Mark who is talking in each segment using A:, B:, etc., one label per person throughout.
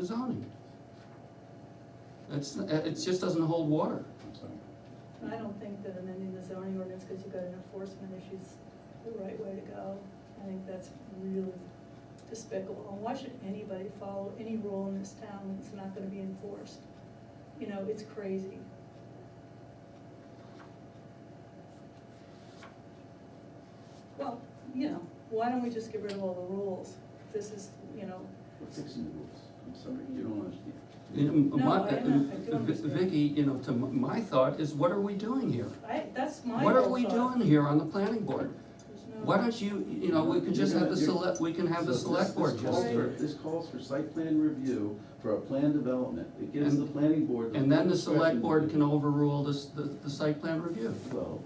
A: the zoning. It's, it just doesn't hold water.
B: I don't think that amending the zoning ordinance, because you've got an enforcement issue, is the right way to go. I think that's really despicable, and why should anybody follow any rule in this town when it's not gonna be enforced? You know, it's crazy. Well, you know, why don't we just get rid of all the rules? This is, you know,
C: We're fixing the rules. I'm sorry, you don't understand.
A: You know,
B: No,
A: my-
B: I know, I do
A: uh,
B: understand.
A: Vicky, you know, to m- my thought is, what are we doing here?
B: I, that's my
A: What are we
B: whole thought.
A: doing here on the planning board?
B: There's no-
A: Why don't you, you know, we could just have the select, we can have the
C: So this-
A: select board
C: This calls
A: just,
C: for, this calls for site plan review for a plan development. It gives
A: And-
C: the planning board.
A: and then the select
C: discretion
A: board
C: to-
A: can overrule this, the, the site plan review.
C: Well,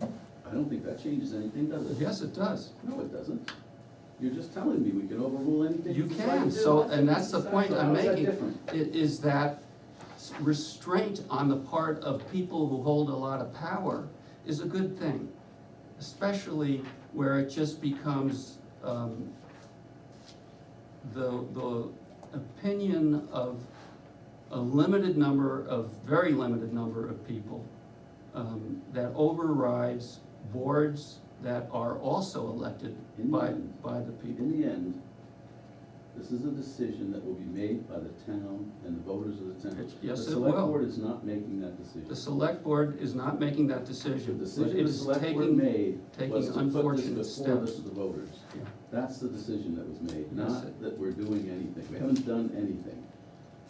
C: I don't think that changes anything, does it?
A: Yes, it does.
C: No, it doesn't. You're just telling me we can overrule anything.
A: You
C: the
A: can,
C: select
A: so,
C: do.
A: and that's the point
C: So
A: I'm
C: how is that
A: making,
C: different?
A: i- is that restraint on the part of people who hold a lot of power is a good thing. Especially where it just becomes, um, the, the opinion of a limited number of, very limited number of people, um, that overrides boards that are also elected
C: In the
A: by,
C: end.
A: by the people.
C: In the end, this is a decision that will be made by the town and the voters of the town.
A: It's- yes,
C: The
A: it
C: select
A: will.
C: board is not making that decision.
A: The select board is not making that
C: The
A: decision, but
C: decision
A: it
C: the
A: is
C: select board
A: taking,
C: made
A: taking
C: was to put
A: unfortunate
C: this before
A: steps.
C: this to the voters.
A: Yeah.
C: That's the decision that was made,
A: Yes, it-
C: not that we're doing anything. We haven't done anything.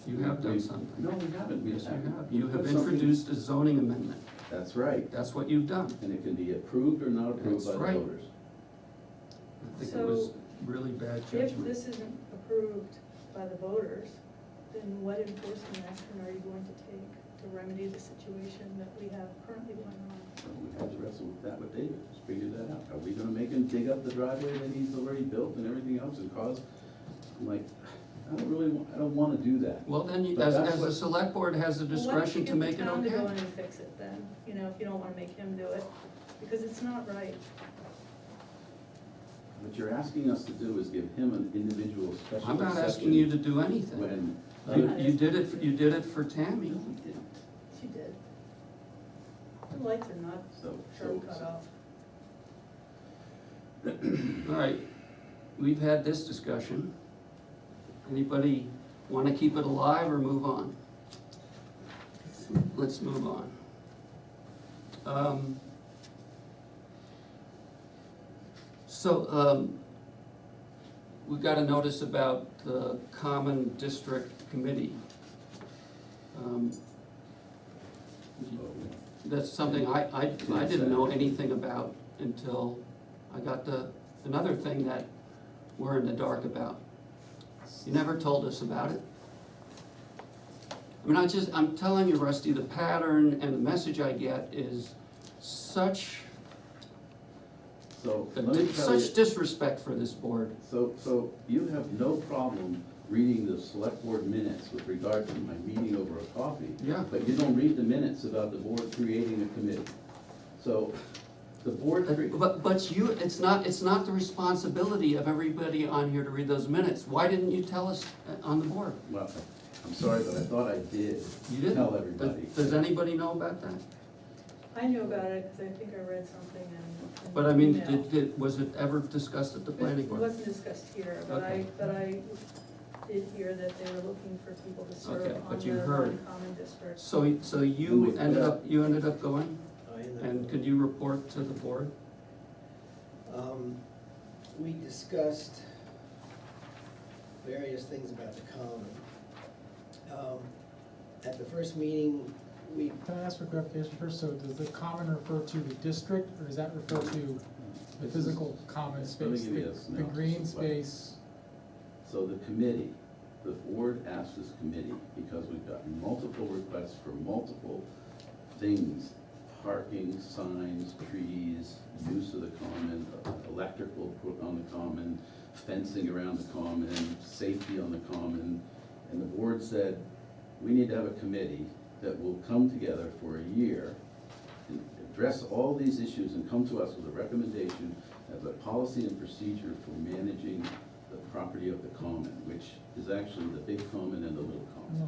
A: you have done
C: We-
A: something.
C: No, we haven't. We
A: Yes, you
C: haven't.
A: have.
C: We
A: You have
C: put something-
A: introduced a zoning amendment.
C: That's right,
A: That's what you've done.
C: and it can be approved or not approved
A: That's
C: by the
A: right.
C: voters.
A: I think it was
B: So,
A: really bad
B: If
A: judgment.
B: this isn't approved by the voters, then what enforcement action are you going to take to remedy the situation that we have currently going on?
C: So we have to wrestle with that with David, just figure that out. Are we gonna make him dig up the driveway that he's already built and everything else and cause, I'm like, I don't really, wa- I don't wanna do that.
A: Well, then, you-
C: But
A: as,
C: that's
A: as the
C: what-
A: select board has the
B: Well, why don't
A: discretion
B: you
A: to make it
B: Get the town to go
A: okay.
B: in and fix it then, you know, if you don't wanna make him do it, because it's not right.
C: What you're asking us to do is give him an individual special
A: I'm not asking
C: exception
A: you to do anything.
C: When.
A: You, you did it, you did it for Tammy.
C: No, we didn't.
B: She did. The lights are not
C: So, so,
B: sharp cut off.
A: All right, we've had this discussion. Anybody want to keep it alive or move on? Let's move on. Um, So, um, we got a notice about the Common District Committee. Um, That's something I, I, I didn't know anything about until I got the, another thing that we're in the dark about. You never told us about it. I mean, I just, I'm telling you, Rusty, the pattern and the message I get is such,
C: so let me tell you,
A: such disrespect for this board.
C: so, so you have no problem reading the select board minutes with regard to my meeting over a coffee.
A: Yeah.
C: But you don't read the minutes about the board creating a committee. So the board, cre-
A: Uh, But, but you, it's not, it's not the responsibility of everybody on here to read those minutes. Why didn't you tell us uh, on the board?
C: well, I'm sorry, but I thought I did
A: You didn't.
C: tell
A: Does-
C: everybody.
A: Does anybody know about that?
B: I knew about it, cause I think I read something in. in
A: But I mean,
B: email.
A: did, did, was it ever discussed at the planning
B: It
A: board?
B: wasn't discussed here, but I,
A: Okay.
B: but I did hear that they were looking for people to serve
A: Okay,
B: on
A: but
B: the
A: you heard.
B: non-common district.
A: So, so
C: We
A: you
C: put
A: ended
C: out-
A: up, you ended up going,
D: I
A: and
D: know.
A: could you report to the board?
D: Um, we discussed various things about the common. Um, at the first meeting, we,
E: Can I ask for clarification first? So does the common refer to the district, or does that refer to the
C: This is-
E: physical common
C: Let me
E: space?
C: give you this
E: The the
C: analysis
E: green
C: of what-
E: space,
C: So the committee, the board asked this committee, because we've gotten multiple requests for multiple things, parking, signs, trees, use of the common, electrical put on the common, fencing around the common, safety on the common, and the board said, we need to have a committee that will come together for a year and address all these issues and come to us with a recommendation as a policy and procedure for managing the property of the common, which is actually the big common and the little common.